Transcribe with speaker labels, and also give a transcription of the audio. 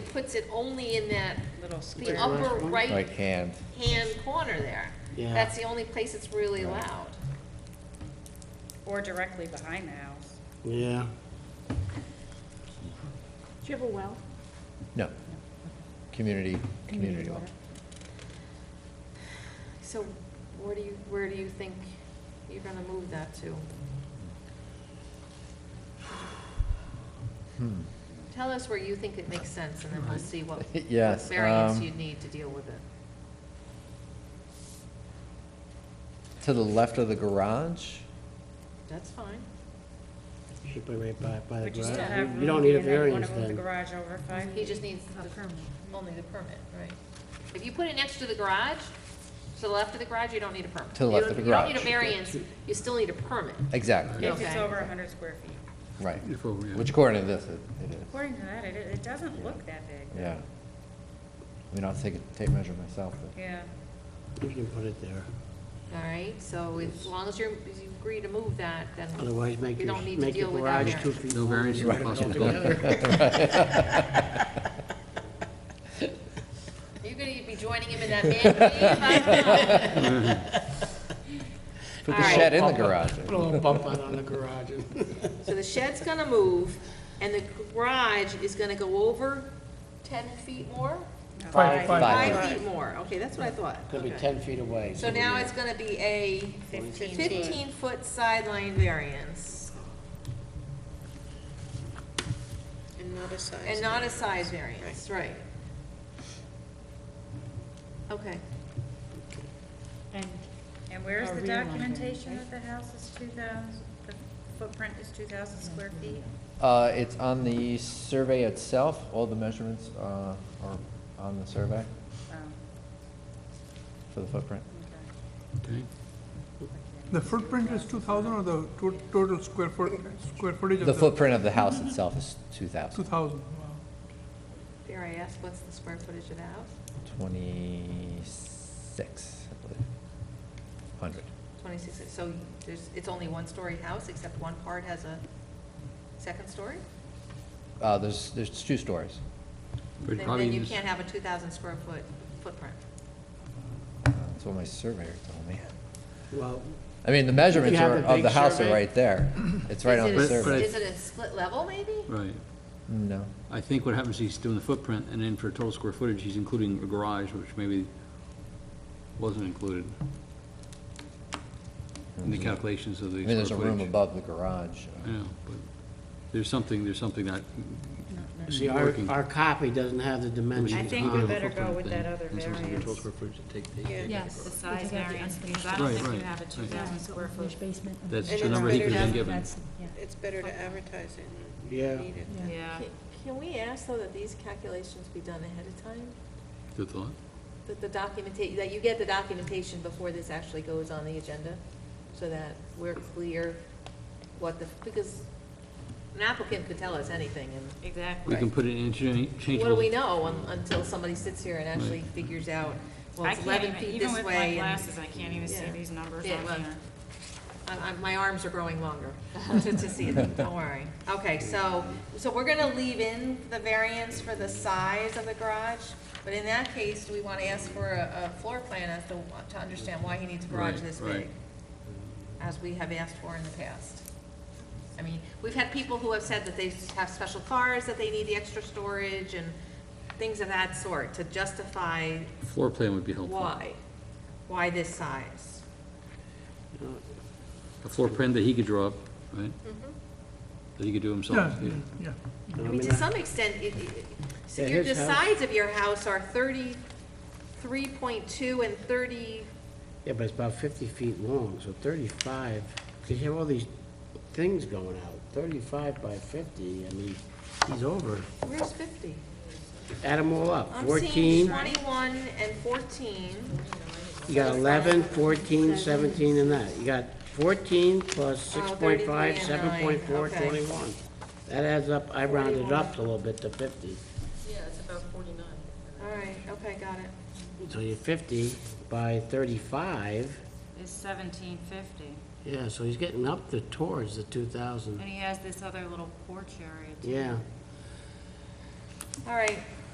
Speaker 1: puts it only in that,
Speaker 2: Little
Speaker 1: the
Speaker 2: square.
Speaker 1: upper
Speaker 3: right
Speaker 1: right-hand
Speaker 3: hand.
Speaker 1: corner there.
Speaker 4: Yeah.
Speaker 1: That's the only place it's really
Speaker 3: Right.
Speaker 1: loud.
Speaker 2: Or directly behind the house.
Speaker 4: Yeah,
Speaker 5: Do you have a well?
Speaker 3: No. Community, community well.
Speaker 1: So where do you, where do you think you're gonna move that to?
Speaker 3: Hmm.
Speaker 1: Tell us where you think it makes sense, and then we'll see what what
Speaker 3: Yes,
Speaker 1: variance
Speaker 3: um,
Speaker 1: you need to deal with it.
Speaker 3: To the left of the garage?
Speaker 1: That's fine.
Speaker 4: should be right by, by the
Speaker 2: But you still
Speaker 4: garage.
Speaker 2: have
Speaker 4: You don't
Speaker 2: room
Speaker 4: need a
Speaker 2: in there, you wanna move the
Speaker 4: variance then.
Speaker 2: garage over five
Speaker 1: He
Speaker 2: feet.
Speaker 1: just needs the Only the permit, right. If you put it next to the garage, to the left of the garage, you don't need a permit.
Speaker 3: To the
Speaker 1: You
Speaker 3: left
Speaker 1: don't-
Speaker 3: of the
Speaker 1: You don't need a variance, you still need a permit.
Speaker 3: Exactly,
Speaker 2: If it's
Speaker 1: Okay.
Speaker 2: over hundred square feet.
Speaker 3: right.
Speaker 6: If over, yeah.
Speaker 3: Which according to this, it it is,
Speaker 2: According to that, it, it doesn't look that big.
Speaker 3: yeah. I mean, I'll take a tape measure myself, but
Speaker 2: Yeah.
Speaker 4: You can put it there.
Speaker 1: All right, so as long as you're, as you agree to move that, then
Speaker 4: Otherwise, make
Speaker 1: you
Speaker 4: your,
Speaker 1: don't need to
Speaker 4: make your
Speaker 1: deal with that
Speaker 4: garage two
Speaker 1: variance.
Speaker 4: feet.
Speaker 6: No
Speaker 4: long.
Speaker 6: variance is
Speaker 4: Right.
Speaker 6: possible.
Speaker 1: You're gonna be joining him in that man cave, I don't know.
Speaker 3: put
Speaker 1: All
Speaker 3: the
Speaker 1: right.
Speaker 3: shed in the garage.
Speaker 4: Put a little bump out on the garage.
Speaker 1: So the shed's gonna move, and the garage is gonna go over ten feet more?
Speaker 4: Five,
Speaker 3: Five.
Speaker 1: Five feet more, okay, that's what I thought.
Speaker 4: Gonna be
Speaker 1: Okay.
Speaker 4: ten feet away.
Speaker 1: So now it's gonna be a
Speaker 2: Fifteen foot.
Speaker 1: fifteen-foot sideline variance,
Speaker 7: And not a size.
Speaker 1: and not a size variance, right? Okay,
Speaker 5: And
Speaker 2: And where's
Speaker 5: Or
Speaker 2: the
Speaker 5: realign them,
Speaker 2: documentation
Speaker 5: right?
Speaker 2: that the house is two thousand, the footprint is two thousand square feet?
Speaker 3: Uh, it's on the survey itself, all the measurements, uh, are on the survey
Speaker 2: Oh,
Speaker 3: for the footprint.
Speaker 2: okay.
Speaker 6: Okay.
Speaker 8: The footprint is two thousand or the to- total square foot, square footage of
Speaker 3: The footprint of the house itself is two
Speaker 8: Two
Speaker 3: thousand,
Speaker 8: thousand, wow.
Speaker 1: dare I ask, what's the square footage of the house?
Speaker 3: twenty-six, I believe, hundred.
Speaker 1: Twenty-six, so there's, it's only one-story house, except one part has a second story?
Speaker 3: Uh, there's, there's two stories.
Speaker 6: But
Speaker 1: Then-
Speaker 6: probably
Speaker 1: Then you
Speaker 6: use-
Speaker 1: can't have a two thousand square foot footprint.
Speaker 3: Uh, That's what my surveyor told me.
Speaker 4: Well,
Speaker 3: I mean, the measurements
Speaker 4: have
Speaker 3: are,
Speaker 4: a
Speaker 3: of
Speaker 4: big
Speaker 3: the house are
Speaker 4: survey-
Speaker 3: right there. It's right
Speaker 1: Is
Speaker 3: on
Speaker 1: it
Speaker 3: the
Speaker 1: a-
Speaker 6: But- but
Speaker 3: survey.
Speaker 6: I-
Speaker 1: Is it a split level, maybe?
Speaker 6: Right.
Speaker 3: No.
Speaker 6: I think what happens, is he's doing the footprint, and then for total square footage, he's including a garage, which maybe wasn't included in the calculations of
Speaker 3: Mm-hmm. I
Speaker 6: the
Speaker 3: mean, there's a
Speaker 6: square
Speaker 3: room
Speaker 6: footage.
Speaker 3: above the garage.
Speaker 6: I know, but there's something, there's something that
Speaker 4: see,
Speaker 6: isn't
Speaker 4: our,
Speaker 6: working.
Speaker 4: our copy doesn't have the dimensions
Speaker 2: I
Speaker 4: on.
Speaker 2: think we better go with
Speaker 6: Footprint
Speaker 2: that other
Speaker 6: thing, and sometimes the total
Speaker 2: variance.
Speaker 6: square footage to take the-
Speaker 7: Yeah.
Speaker 5: Yes.
Speaker 2: The size
Speaker 5: Because of the
Speaker 2: variance, because I
Speaker 5: unfinished
Speaker 6: Right,
Speaker 2: don't think you
Speaker 6: right,
Speaker 2: have a two
Speaker 6: right.
Speaker 2: thousand square foot.
Speaker 5: basement. of
Speaker 6: That's
Speaker 5: the-
Speaker 6: the
Speaker 7: And
Speaker 6: number
Speaker 7: it's
Speaker 6: he could have been
Speaker 7: better
Speaker 6: given.
Speaker 5: That's, yeah.
Speaker 7: It's better to advertise it. and
Speaker 4: Yeah.
Speaker 7: read it.
Speaker 5: Yeah.
Speaker 2: Yeah.
Speaker 1: Can we ask, though, that these calculations be done ahead of time?
Speaker 6: Good thought.
Speaker 1: That the documentation, that you get the documentation before this actually goes on the agenda? So that we're clear what the, because an applicant could tell us anything, and
Speaker 2: Exactly.
Speaker 6: We can put it in interchangeable.
Speaker 1: what do we know un- until somebody sits here and actually
Speaker 6: Right.
Speaker 1: figures out, well,
Speaker 2: I
Speaker 1: it's
Speaker 2: can't
Speaker 1: eleven
Speaker 2: even,
Speaker 1: feet
Speaker 2: even
Speaker 1: this
Speaker 2: with my
Speaker 1: way, and
Speaker 2: glasses, I can't even see
Speaker 1: Yeah.
Speaker 2: these numbers
Speaker 1: Yeah, well,
Speaker 2: on here.
Speaker 1: I- I- My arms are growing longer to to see them, don't worry. Okay, so, so we're gonna leave in the variance for the size of the garage, but in that case, do we wanna ask for a, a floor plan as to, to understand why he needs a garage
Speaker 6: Right,
Speaker 1: this
Speaker 6: right.
Speaker 1: big? As we have asked for in the past. I mean, we've had people who have said that they have special cars, that they need the extra storage and things of that sort to justify
Speaker 6: Floor plan would be helpful.
Speaker 1: why, why this size.
Speaker 6: A floor plan that he could draw up, right? That he could do himself.
Speaker 8: Yeah,
Speaker 6: yeah.
Speaker 8: yeah.
Speaker 4: I
Speaker 1: I mean,
Speaker 4: mean,
Speaker 1: to some extent, it, it, so
Speaker 4: Yeah,
Speaker 1: your, the
Speaker 4: his house-
Speaker 1: sides of your house are thirty-three point two and thirty,
Speaker 4: Yeah, but it's about fifty feet long, so thirty-five, because you have all these things going out, thirty-five by fifty, I mean, he's over.
Speaker 1: where's fifty?
Speaker 4: Add them all up,
Speaker 1: I'm seeing
Speaker 4: fourteen,
Speaker 1: twenty-one and fourteen,
Speaker 4: you got 11, 14, 17, and that, you got fourteen plus
Speaker 1: Oh,
Speaker 4: six point
Speaker 1: 33
Speaker 4: five,
Speaker 1: and
Speaker 4: seven point four,
Speaker 1: nine, okay.
Speaker 4: twenty-one. That adds up, I rounded it up a little bit to fifty,
Speaker 1: all right, okay, got it.
Speaker 4: so you're fifty by thirty-five,
Speaker 2: It's seventeen fifty,
Speaker 4: yeah, so he's getting up to towards the two thousand,
Speaker 2: and he has this other little porch area too.
Speaker 4: yeah.
Speaker 1: All right,